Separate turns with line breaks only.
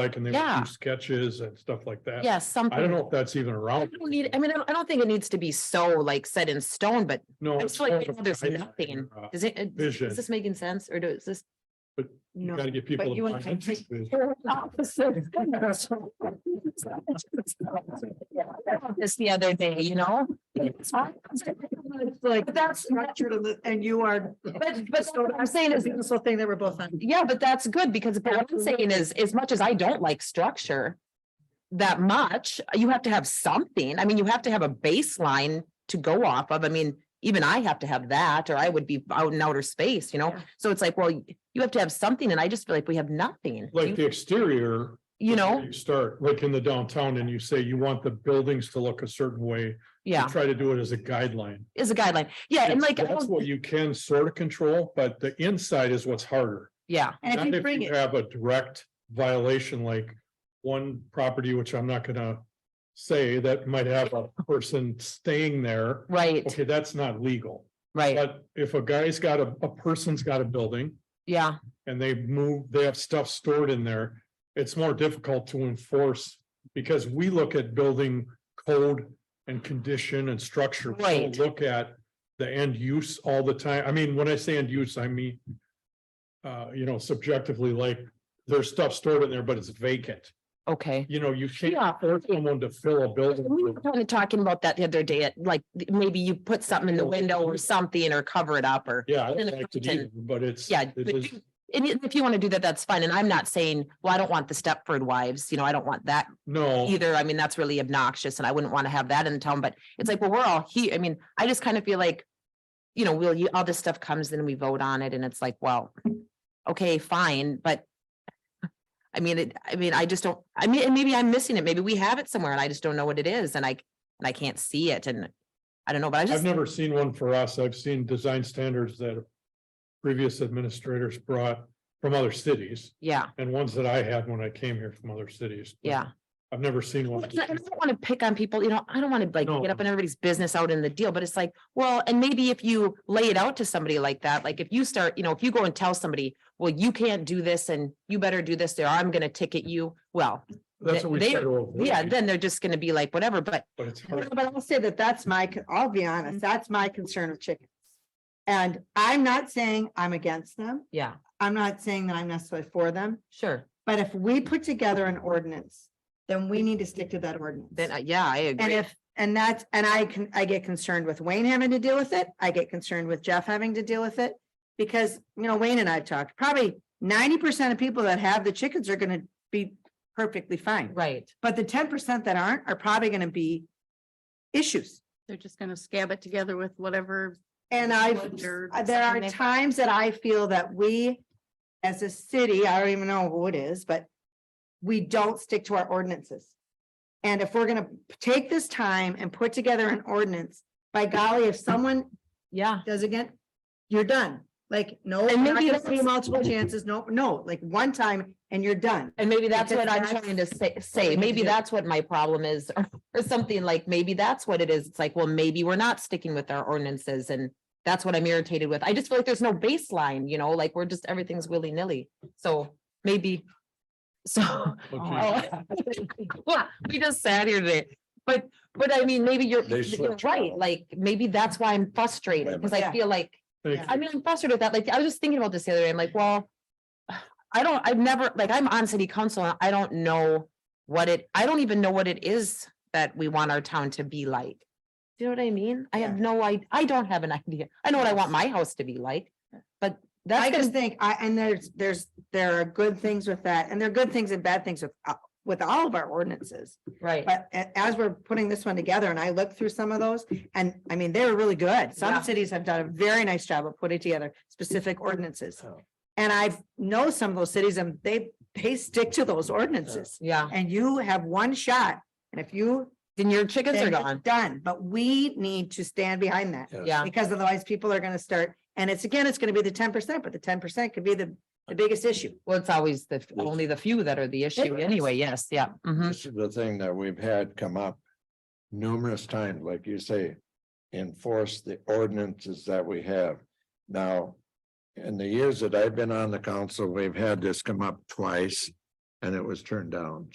like, and they
Yeah.
would do sketches and stuff like that.
Yes, something.
I don't know if that's even
I
around.
don't need, I mean, I don't- I don't think it needs to be so like set in stone, but
No.
I
it's
just like,
more of a
there's
guideline
nothing.
or, uh,
Is it,
vision.
is this making sense or does this?
But You
No.
gotta get people.
but you
to
and
buy into
I-
it. It's-
This the other day, you know? Like,
But that's structured and the- and you are.
but, but what I'm saying is,
This whole thing that we're both on.
yeah, but that's good because but what I'm saying is, as much as I don't like structure. That much, you have to have something. I mean, you have to have a baseline to go off of. I mean, even I have to have that or I would be out in outer space, you know?
Yeah.
So it's like, well, you have to have something and I just feel like we have nothing.
Like the exterior.
You
is where
know,
You start like in the downtown and you say you want the buildings to look a certain way. you
yeah,
Try to do it as a guideline.
is a guideline. Yeah, and
It's-
like, I
That's
don't-
what you can sort of control, but the inside is what's harder.
yeah,
And if
Not
you bring it,
Have a direct violation, like one property, which I'm not gonna say, that might have a person staying there.
right,
Okay, that's not legal,
right,
but if a guy's got a, a person's got a building
yeah,
and they move, they have stuff stored in there. It's more difficult to enforce because we look at building code and condition and structure. We don't
Right.
Look at the end use all the time. I mean, when I say end use, I mean. Uh, you know, subjectively, like there's stuff stored in there, but it's vacant.
okay.
You know, you
Yeah.
can't force someone to fill a building.
We were kind of talking about that the other day, at, like, maybe you put something in the window or something or cover it up or.
Yeah, I
In
don't
the
like it
content.
either, but it's.
Yeah,
it
but
is-
you- and i- if you want to do that, that's fine. And I'm not saying, well, I don't want the Stepford wives, you know, I don't want that
No.
either. I mean, that's really obnoxious and I wouldn't want to have that in town, but it's like, well, we're all here. I mean, I just kind of feel like, you know, we'll, you- all this stuff comes and we vote on it and it's like, well, okay, fine, but I mean, it, I mean, I just don't, I mean, and maybe I'm missing it. Maybe we have it somewhere and I just don't know what it is and I, and I can't see it and I don't know, but I
I've
just,
never seen one for us. I've seen design standards that previous administrators brought from other cities
yeah,
and ones that I had when I came here from other cities. but
yeah.
I've never seen one.
It's not- I don't want to pick on people, you know, I don't want to like
No.
get up in everybody's business out in the deal, but it's like, well, and maybe if you lay it out to somebody like that, like if you start, you know, if you go and tell somebody, well, you can't do this and you better do this, or I'm gonna ticket you, well,
That's what we
they-
said.
yeah, then they're just gonna be like, whatever, but
But it's hard.
but I'll say that that's my, con- I'll be honest, that's my concern of chickens. And I'm not saying I'm against them.
yeah,
I'm not saying that I'm necessarily for them.
sure,
But if we put together an ordinance, then we need to stick to that ordinance.
then, uh, yeah, I
And
agree,
if, and that's, and I can, I get concerned with Wayne having to deal with it. I get concerned with Jeff having to deal with it. Because, you know, Wayne and I've talked, probably ninety percent of people that have the chickens are gonna be perfectly fine.
right,
But the ten percent that aren't are probably gonna be issues.
They're just gonna scab it together with whatever.
And
Well,
I've, uh,
they're-
there are
something they-
times that I feel that we, as a city, I don't even know who it is, but we don't stick to our ordinances. And if we're gonna take this time and put together an ordinance, by golly, if someone
yeah,
does again, you're done. Like, no,
And
you're not
maybe
gonna
that's-
see multiple chances, no, no, like one time and you're done.
and maybe that's
Because
what I'm
that's
trying to say,
we
say,
need to
maybe
do.
that's what my problem is, or- or something like, maybe that's what it is, it's like, well, maybe we're not sticking with our ordinances and that's what I'm irritated with. I just feel like there's no baseline, you know, like we're just, everything's willy nilly. So maybe. So.
Okay.
oh, well, We just sat here today, but, but I mean, maybe you're,
They
you're
switch.
right, like, maybe that's why I'm frustrated, because I
Yeah.
feel like,
Thank
I
you.
mean, I'm frustrated with that. Like, I was just thinking about this the other day. I'm like, well. I don't, I've never, like, I'm on city council and I don't know what it, I don't even know what it is that we want our town to be like. Do you know what I mean? I have no, I, I don't have an idea. I know what I want my house to be like, but that's
I
gonna
just think, I, and there's, there's, there are good things with that, and there are good things and bad things with, uh, with all of our ordinances.
right,
But a- as we're putting this one together and I looked through some of those and I mean, they were really good.
Yeah.
Some cities have done a very nice job of putting together specific ordinances. And I know some of those cities and they, they stick to those ordinances
yeah.
and you have one shot. And if you,
Then your chickens are
then it's
gone.
done, but we need to stand behind that
Yeah,
because otherwise people are going to start. And it's again, it's going to be the ten percent, but the ten percent could be the, the biggest issue.
well, it's always the, f- only the few that are the issue anyway. Yes, yeah. mhm.
This is the thing that we've had come up numerous times, like you say, enforce the ordinances that we have. Now, in the years that I've been on the council, we've had this come up twice. and it was turned down.